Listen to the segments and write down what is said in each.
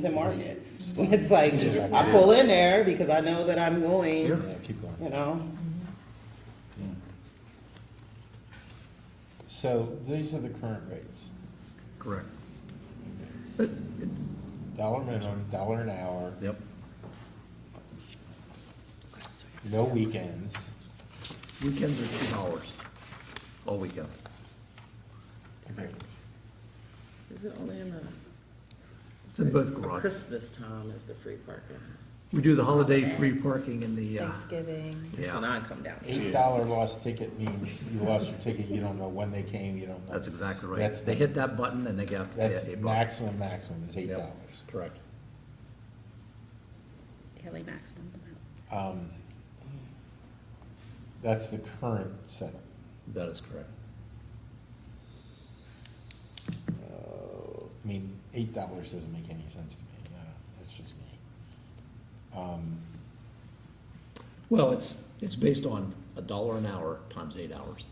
to market. It's like, I pull in there because I know that I'm going, Here? you know? So these are the current rates. Correct. Dollar minimum, dollar an hour, Yep. no weekends. Weekends are two hours, all weekend. Okay. Is it only in the It's in both garages. Christmas time is the free parking? We do the holiday free parking in the, uh, Thanksgiving. That's when yeah, I come down. Eight dollar lost ticket means you lost your ticket, you don't know when they came, you don't know. that's exactly right. That's They the- hit that button and they got. they That's got eight bucks. maximum, maximum is eight Yep. dollars. Correct. Kelly Maximum. Um, That's the current setup. That is correct. So, Uh, I mean, eight dollars doesn't make any sense to me, no, that's just me. Um, Well, it's, it's based on a dollar an hour times eight hours.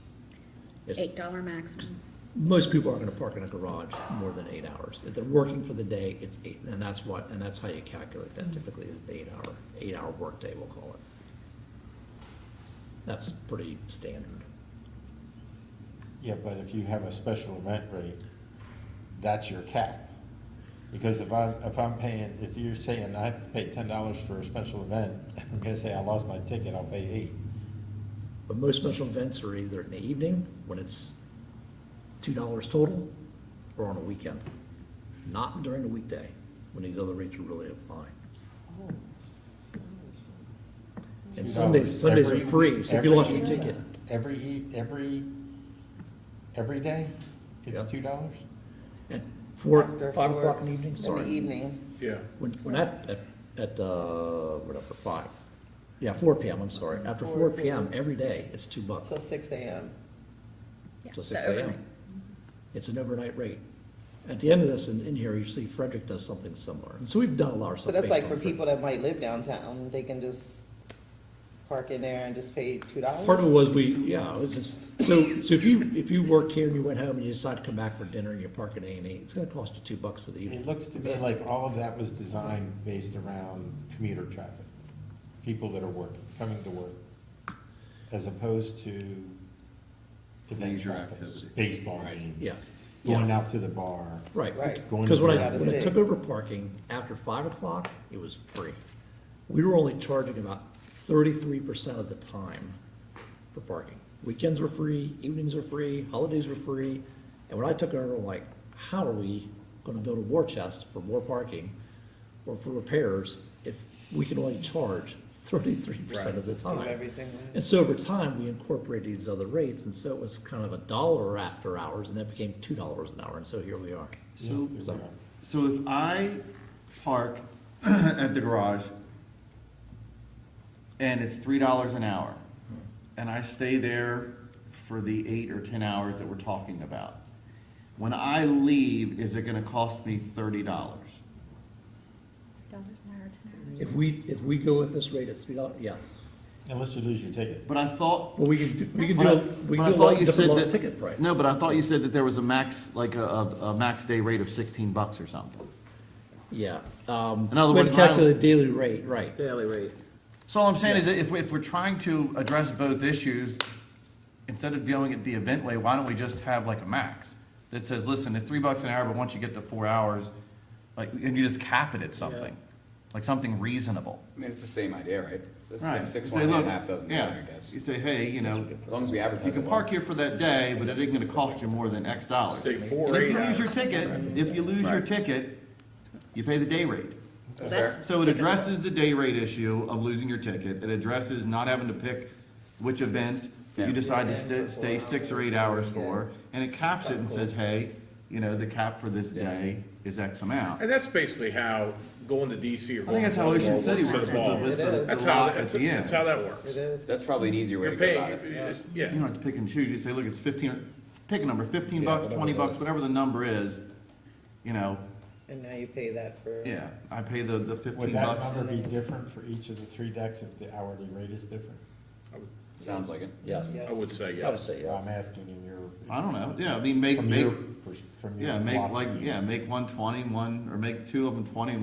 It's- Eight dollar maximum. Most people aren't gonna park in a garage more than eight hours. If they're working for the day, it's eight, and that's what, and that's how you calculate that typically is the eight hour, eight hour workday, we'll call it. That's pretty standard. Yeah, but if you have a special event rate, that's your cap. Because if I, if I'm paying, if you're saying I have to pay ten dollars for a special event, I'm gonna say I lost my ticket, I'll pay eight. But most special events are either in the evening, when it's two dollars total, or on a weekend. Not during the weekday, when these other rates are really applying. And Sundays, Sundays are Every- free, so if you every- lost your ticket, Every, e- every, every day, it's Yeah. two dollars? at four, After five four. o'clock in the evening, In the sorry. evening, Yeah, When, when at, at, at, uh, whatever, five, yeah, four PM, I'm sorry, after Mm-hmm. Four four PM, every day, it's two bucks, till six AM. Yeah, till so six AM. overnight. It's an overnight rate. At the end of this, in, in here, you see Frederick does something similar, and so we've done a lot of stuff. So that's based like on for Frederick. people that might live downtown, they can just park in there and just pay two dollars? Part of it was we, yeah, it was just, so, so if you, if you worked here and you went home and you decide to come back for dinner and you park at A and E, it's gonna cost you two bucks for the It evening. looks to me like all of that was designed based around commuter traffic, people that are working, coming to work, as opposed to event Leisure traffic, activity. baseball Right. Yeah. games, going out to the bar. Right. Right. going Because to when the- I, Out of when I state. took over parking, after five o'clock, it was free. We were only charging about thirty-three percent of the time for parking. Weekends were free, evenings were free, holidays were free. And when I took over, I'm like, how are we gonna build a war chest for more parking or for repairs if we can only charge thirty-three percent of the Do time? Everything. And so over time, we incorporated these other rates, and so it was kind of a dollar after hours, and that became two dollars an hour, and so here we are. Yeah, so, here So- we are. so if I park at the garage and it's three dollars an hour, Hmm. and I stay there for the eight or ten hours that we're talking about, when I leave, is it gonna cost me thirty dollars? Dollars an hour, ten hours. If we, if we go with this rate at three dollars, yes. Unless you lose your ticket. But I thought. But we can, do- we can but I- do, we can but I do a thought lot you of different said lost that- ticket price. No, but I thought you said that there was a max, like a, a, a max day rate of sixteen bucks or something. Yeah. um, In other we have words, to mine- Calculate the daily rate, right. Daily rate. So all I'm saying is that if, we- if we're trying to address both issues, instead of dealing it the event way, why don't we just have like a max? That says, listen, it's three bucks an hour, but once you get to four hours, like, and you just cap it at something, like something reasonable. I mean, it's the same idea, right? It's Right. Six, You say, one and a "Look," half dozen, yeah, dozen, I guess. You say, hey, you know, As long as we advertise. you can it well. park here for that day, but it ain't gonna cost you more than X dollars. Stay And four, if eight you lose hours. your ticket, if you lose your ticket, you pay the day rate. That's That's- fair. So it addresses the day rate issue of losing your ticket, it addresses not having to pick which event you decide to sta- stay six or eight hours for, and it caps it and says, hey, you know, the cap for this day is X amount. And that's basically how going to DC or I think going that's to how Ocean Baltimore works City works as with the, with well. the- That's the how, lot at that's, the that's how end. that works. That's probably an easier way to You're go about paying, it. it's- You don't yeah, have to pick and choose, you say, look, it's fifteen, or- pick a number, fifteen Yeah, bucks, whatever twenty it bucks, is. whatever the number is, you know, And now you pay that for. yeah, I pay the, the Would fifteen that bucks. number be different for each of the three decks if the hourly rate is different? Sounds like it. Yes. Yes. I would say I would yes. say, yeah. I'm asking in your, I don't know, yeah, I mean, make, from make, your, pers- from your yeah, make like, philosophy. yeah, make one twenty, one, or make two of them twenty,